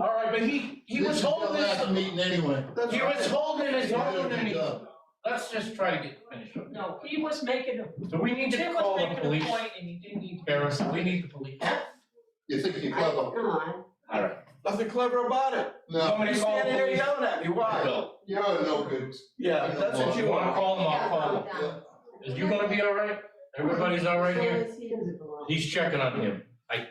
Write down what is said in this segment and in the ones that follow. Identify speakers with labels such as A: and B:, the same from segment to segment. A: Right, but he, he was
B: This is their
A: holding his,
B: last meeting anyway.
C: That's
A: he
C: right.
A: was holding his
B: They better
A: own, and
B: get
A: he,
B: done.
A: let's just try to get finished. up.
D: No, he was making a,
A: So we need
D: Jim
A: to
D: was
A: call the
D: making a
A: police,
D: point and he didn't need.
A: Harris, we need the police.
B: You think you're
E: I-
B: clever?
E: Come on,
A: All right.
C: Nothing clever about it.
B: No,
A: Somebody
C: You're
A: call the
C: standing there
A: police.
C: yelling at me, why?
A: Bill,
B: you're no good.
C: Yeah, that's what
A: you
C: you
A: wanna
C: are.
A: call them, I'll call them.
E: Done.
A: Is you gonna be all right? Everybody's all right here?
E: So is he. Doesn't belong.
A: He's checking on him. I,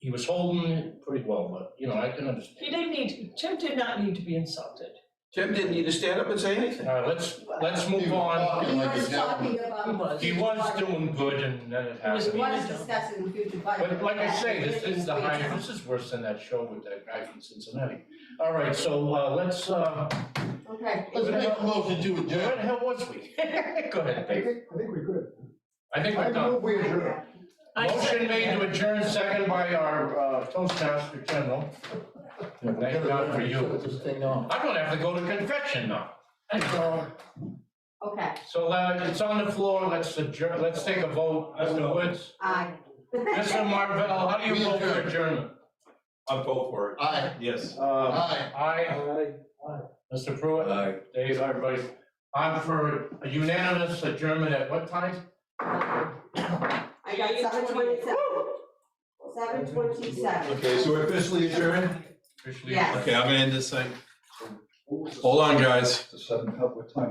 A: he was holding it pretty well, but, you know, I can
D: He
A: understand.
D: didn't need, Jim did not need to be insulted.
C: Jim didn't need to stand up and say anything.
A: All right, let's, let's
B: He
A: move
B: was
A: on.
B: talking
E: He
B: like a
E: was
B: gentleman.
E: talking about.
D: He was.
A: He was doing good and then it
D: was
E: He
A: happened.
E: was discussing the future budget.
A: But like I say, this is the
E: Way
A: high,
E: down.
A: this is worse than that show with that guy from Cincinnati. All right, so, uh, let's, uh,
E: Okay.
B: Let's make a motion to
A: where
B: adjourn.
A: the hell was we? Go ahead,
F: I
A: Dave.
F: think, I think we could.
A: I think we're
F: I
A: done.
F: move we adjourn.
D: I
A: Motion
D: second
A: made
D: that.
A: to adjourn, second by our, uh, Toastmaster General. Thank God for you.
B: Shut this thing off.
A: I'm gonna have to go to confession now.
E: Okay,
A: So uh, it's on the floor, let's adjourn, let's take a vote, Mr. Woods.
E: aye.
A: Mr. Marvell, how do
B: We
A: you vote for
B: adjourn.
A: adjournment?
G: I'll vote for it,
B: Aye,
G: yes.
A: Um,
C: Uh,
B: aye.
A: Aye,
C: I-
A: Mr. Pruitt,
G: Uh,
A: Dave, everybody. I'm for a unanimous adjournment at what time?
E: I got seven twenty-seven. Seven twenty-seven.
G: Okay, so we're officially adjourned?
A: Officially
E: Yes.
G: Okay, I'm gonna end this thing. Hold on, guys.
F: To seven up with time.